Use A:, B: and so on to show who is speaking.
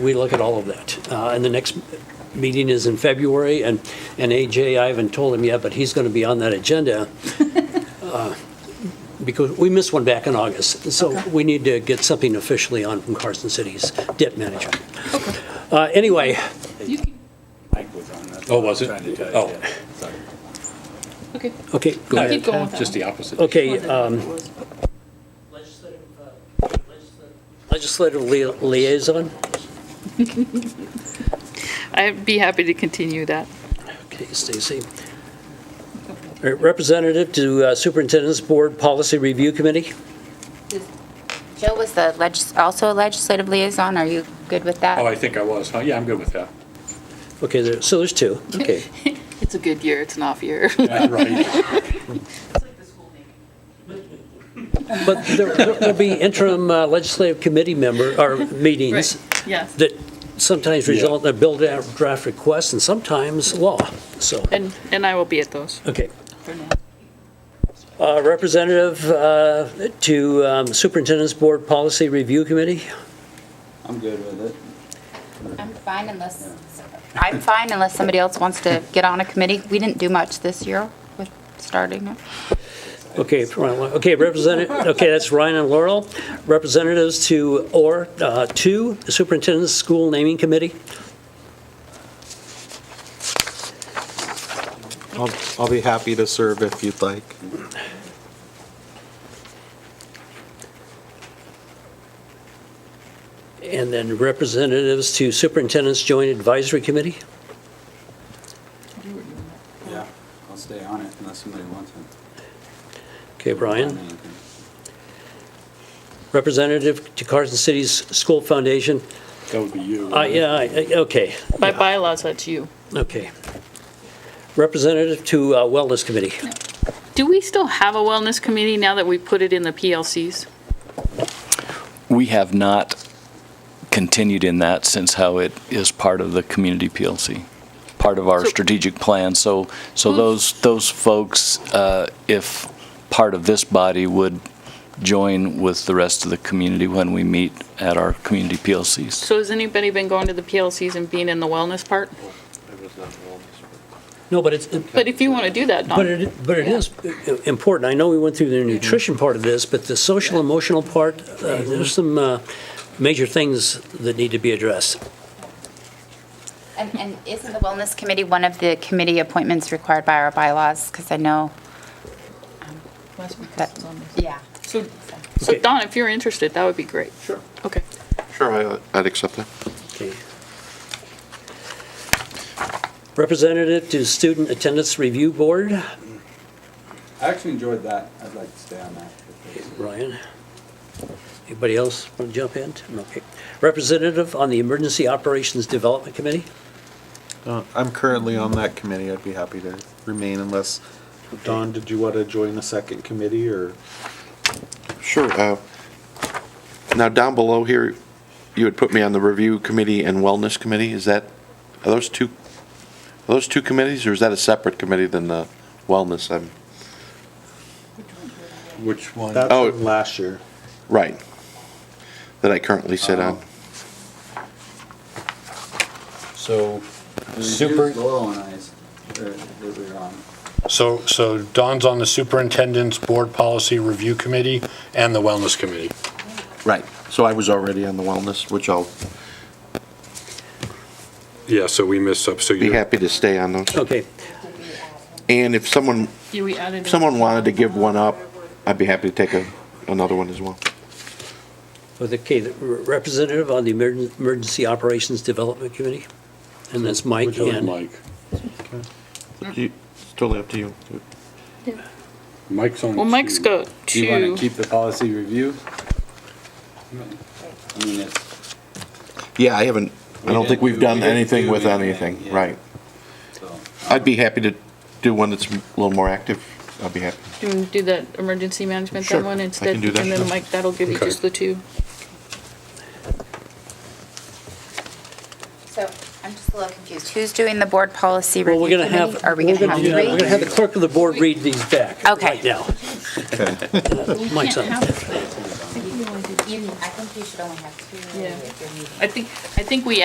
A: we look at all of that. Uh, And the next meeting is in February, and, and AJ, I haven't told him yet, but he's going to be on that agenda. uh, Because we missed one back in August, so we need to get something officially on from Carson City's debt management. Uh, Anyway,
B: You can,
C: Mike was on that.
D: Oh, was it?
C: Trying to tell you,
D: Oh.
C: yeah. Sorry.
B: okay.
A: okay, go
B: No,
A: ahead.
B: keep going with that
D: Just
B: one.
D: the opposite.
A: Okay, um, Legislative, uh, legislative lia- liaison?
B: I'd be happy to continue that.
A: Okay, Stacy. All right, Representative to uh, Superintendent's Board Policy Review Committee?
E: Joe was the legis, also a legislative liaison. Are you good with that?
D: Oh, I think I was. huh? Yeah, I'm good with that.
A: Okay, there- so there's two, okay.
B: It's a good year, it's an off year.
D: Yeah, right.
A: But there- there'll be interim uh, legislative committee member, or meetings
B: Right, yes.
A: that sometimes result in a build-out draft request and sometimes law, so,
B: And, and I will be at those
A: okay.
B: for now.
A: Uh, Representative uh, to um, Superintendent's Board Policy Review Committee?
C: I'm good with it.
E: I'm fine unless, I'm fine unless somebody else wants to get on a committee. We didn't do much this year with starting it.
A: Okay, for- okay, Representative, okay, that's Ryan and Laurel. Representatives to, or uh, to the Superintendent's School Naming Committee?
F: I'll, I'll be happy to serve if you'd like.
A: And then representatives to Superintendent's Joint Advisory Committee?
C: Yeah, I'll stay on it unless somebody wants it.
A: Okay,
C: On
A: Brian.
C: anything.
A: Representative to Carson City's School Foundation?
D: That would be you.
A: I- Uh, Yeah, I- I- okay,
B: By bylaws, that's you.
A: okay. Representative to uh, Wellness Committee?
B: Do we still have a wellness committee now that we put it in the PLCs?
G: We have not continued in that since how it is part of the community PLC, part of our
B: So-
G: strategic plan. So, so
B: Who's-
G: those, those folks, uh, if part of this body, would join with the rest of the community when we meet at our community PLCs.
B: So has anybody been going to the PLCs and being in the wellness part?
A: No, but it's,
B: But if you want to do that,
A: But
B: Don,
A: it, but it is important. I know we went through the nutrition part of this, but the social emotional part, uh, there's some uh, major things that need to be addressed.
E: And, and isn't the wellness committee one of the committee appointments required by our bylaws? Because I know that, yeah.
B: so, so
A: Okay.
B: Don, if you're interested, that would be great. Sure. Okay.
H: Sure, I- I'd accept that.
A: Okay. Representative to Student Attendance Review Board,
C: I actually enjoyed that. I'd like to stay on that. if there's-
A: Ryan. Anybody else want to jump in? Okay. Representative on the Emergency Operations Development Committee?
F: Uh, I'm currently on that committee. I'd be happy to remain unless, Don, did you want to join a second committee or?
H: Sure. uh, Now, down below here, you had put me on the review committee and wellness committee. Is that, are those two, are those two committees, or is that a separate committee than the wellness? I'm-
D: Which one?
F: That's
H: Oh.
F: from last year.
H: Right. That I currently sit on.
I: So,
C: We
I: Super-
C: used Laurel and I's, uh, that we were on.
I: so, so Don's on the Superintendent's Board Policy Review Committee and the Wellness Committee.
H: Right. So I was already on the wellness, which I'll
D: Yeah, so we missed up, so
H: be
D: you're,
H: happy to stay on those.
A: Okay,
H: And if someone,
B: Yeah, we added.
H: if someone wanted to give one up, I'd be happy to take a- another one as well.
A: with, okay, the re- representative on the Emergen- Emergency Operations Development Committee? And that's Mike
D: Majority
A: and
D: Mike.
H: You- It's totally up to you.
D: Mike's on.
B: Well, Mike's
D: two.
B: got
C: Do you want to
B: two.
C: keep the policy review? I mean, it's,
H: Yeah, I haven't, I don't think we've done
C: We didn't
H: anything
C: do
H: with
C: anything,
H: anything,
C: yeah.
H: right.
C: so,
H: I'd be happy to do one that's a little more active. I'd be happy.
B: Do, do that emergency management,
H: Sure,
B: that one
H: I can
B: instead?
H: do that,
B: And then
H: sure.
B: Mike, that'll give you
D: Okay.
B: just the two.
E: So I'm just a little confused. Who's doing the board policy
A: Well, we're
E: review
A: going to have,
E: committee? Are we
A: we're
E: going to
A: gonna
E: have
A: do that. We're
E: three?
A: gonna have the clerk of the board read these back
E: Okay.
A: right now.
F: Okay.
A: Mike's on.
E: You, I think you should only have two
B: Yeah.
E: if you're meeting.
B: I think, I think we